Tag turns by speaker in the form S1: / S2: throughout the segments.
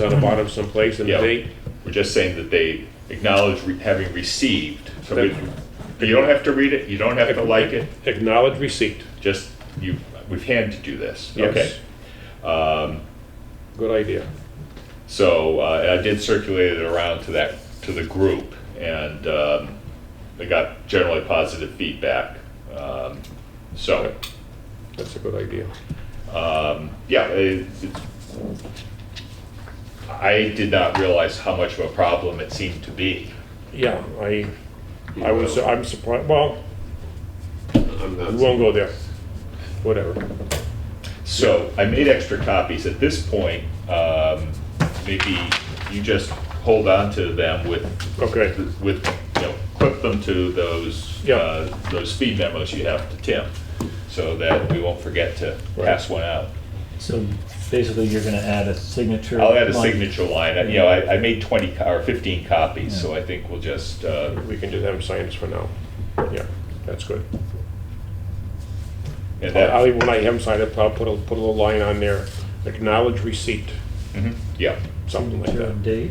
S1: on the bottom someplace in the
S2: Yeah.
S1: date?
S2: We're just saying that they acknowledge re- having received, so we- you don't have to read it, you don't have to like it,
S1: Acknowledge receipt.
S2: just, you, we've had to do this,
S1: Yes. Um,
S2: okay?
S1: Good idea.
S2: So uh, I did circulate it around to that, to the group, and um, I got generally positive feedback. Um, So,
S1: That's a good idea.
S2: yeah, it- it- I did not realize how much of a problem it seemed to be.
S1: Yeah, I, I was, I'm surprised, well,
S3: I'm
S1: we
S3: not,
S1: won't go there. Whatever.
S2: So I made extra copies. At this point, um, maybe you just hold on to them with,
S1: Okay.
S2: with, you know, clip them to those,
S1: Yeah.
S2: uh, those speed memos you have to Tim, so that we won't forget to pass one out.
S4: So basically, you're gonna add a signature.
S2: I'll add a
S4: line.
S2: signature line. You know, I, I made 20 co- or 15 copies, so I think we'll just, uh,
S1: We can just have them sign this for now. Yeah, that's good.
S2: and that-
S1: I'll, when I have them sign it, I'll put a, put a little line on there, acknowledge receipt,
S2: mhm, yeah.
S1: something like
S4: Your
S1: that.
S4: own date.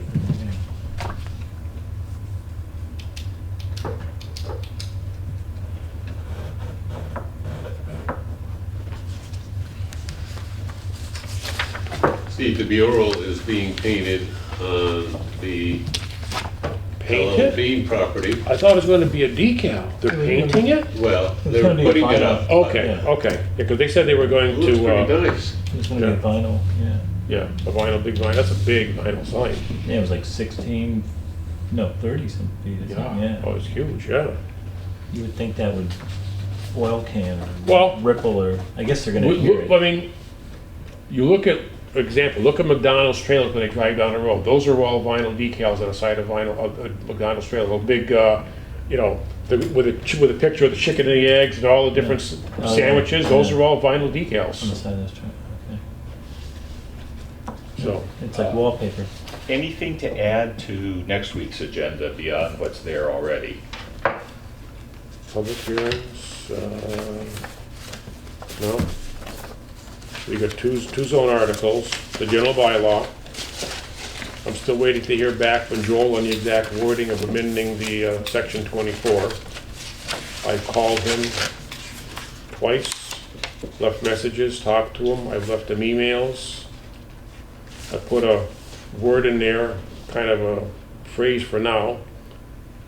S3: Steve, the mural is being painted on the L.L.
S1: Painted?
S3: Bean property.
S1: I thought it was gonna be a decal. They're painting it?
S3: Well,
S4: It's
S3: they're
S4: gonna be
S3: putting it
S4: vinyl.
S3: up.
S1: Okay,
S4: Yeah.
S1: okay. Yeah, because they said they were
S3: It
S1: going
S3: Looks
S1: to, uh,
S3: pretty nice.
S4: It's gonna be
S1: Yeah.
S4: vinyl, yeah.
S1: yeah, the vinyl, big vinyl, that's a big vinyl sign.
S4: Yeah, it was like sixteen, no, thirty some feet, isn't it?
S1: Oh,
S4: yeah.
S1: it's huge, yeah.
S4: You would think that would oil can
S1: Well-
S4: or ripple or, I guess they're gonna
S1: We-
S4: hear
S1: we- I
S4: it.
S1: mean, you look at, for example, look at McDonald's trailers when they drive down the road. Those are all vinyl decals on the side of vinyl, of of McDonald's trailer, a big, uh, you know, the- with a, ch- with a picture of the chicken and the eggs and all the different s-
S4: Yeah. Oh, yeah.
S1: sandwiches, those
S4: Yeah.
S1: are all vinyl
S4: On the
S1: decals,
S4: side of this truck, okay.
S1: so.
S4: It's like wallpaper.
S2: Anything to add to next week's agenda beyond what's there already?
S1: Public hearings, uh, no. We got two, two zone articles, the general bylaw. I'm still waiting to hear back from Joel on the exact wording of amending the uh, section 24. I called him twice, left messages, talked to him, I've left him emails. I put a word in there, kind of a phrase for now.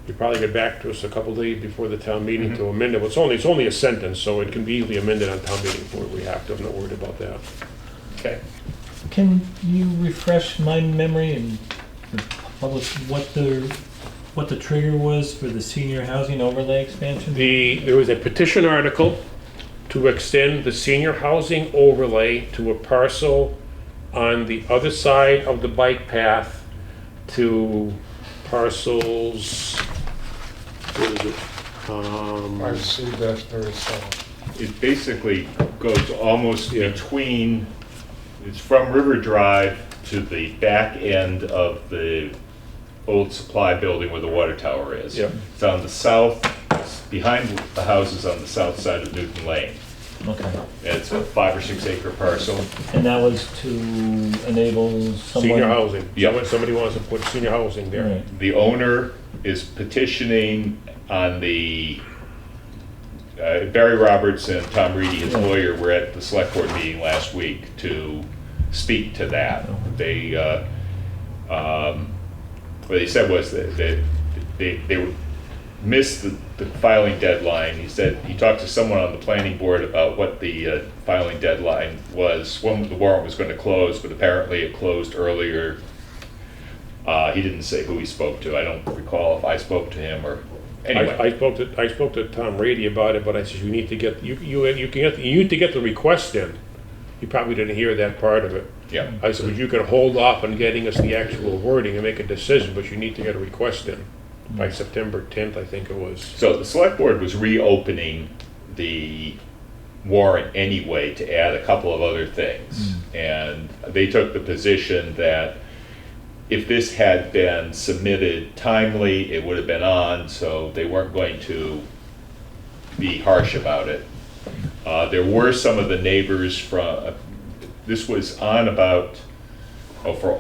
S1: You probably get back to us a couple days before the town meeting to amend it. It's only, it's only a sentence, so it can be easily amended on town meeting floor. We have to, I'm not worried about that.
S2: Okay.
S4: Can you refresh my memory and the public, what the, what the trigger was for the senior housing overlay expansion?
S1: The, there was a petition article to extend the senior housing overlay to a parcel on the other side of the bike path to parcels, what is it? Um,
S5: I see that very seldom.
S2: It basically goes almost between, it's from River Drive to the back end of the old supply building where the water tower is.
S1: Yep.
S2: It's on the south, it's behind the houses on the south side of Newton Lane.
S4: Okay.
S2: And It's a five or six acre parcel.
S4: And that was to enable someone.
S1: Senior housing.
S2: Yeah.
S1: Somebody- Somebody wants to put senior housing
S4: All
S1: there.
S4: right.
S2: The owner is petitioning on the, uh, Barry Roberts and Tom Reedy, his lawyer, were at the select board meeting last week to speak to that. They, uh, um, what they said was that that they, they would miss the the filing deadline. He said, he talked to someone on the planning board about what the uh, filing deadline was, when the warrant was going to close, but apparently it closed earlier uh, he didn't say who he spoke to. I don't recall if I spoke to him or, anyway.
S1: I, I spoke to, I spoke to Tom Rady about it, but I said, you need to get, you, you, you can get, you need to get the request in. He probably didn't hear that part of it.
S2: Yeah,
S1: I said, but you can hold off on getting us the actual wording and make a decision, but you need to get a request in by September tenth, I think it was.
S2: so the select board was reopening the warrant anyway to add a couple of other things. And they took the position that if this had been submitted timely, it would have been on, so they weren't going to be harsh about it. Uh, There uh, were some of the neighbors from, this was on about, oh, for,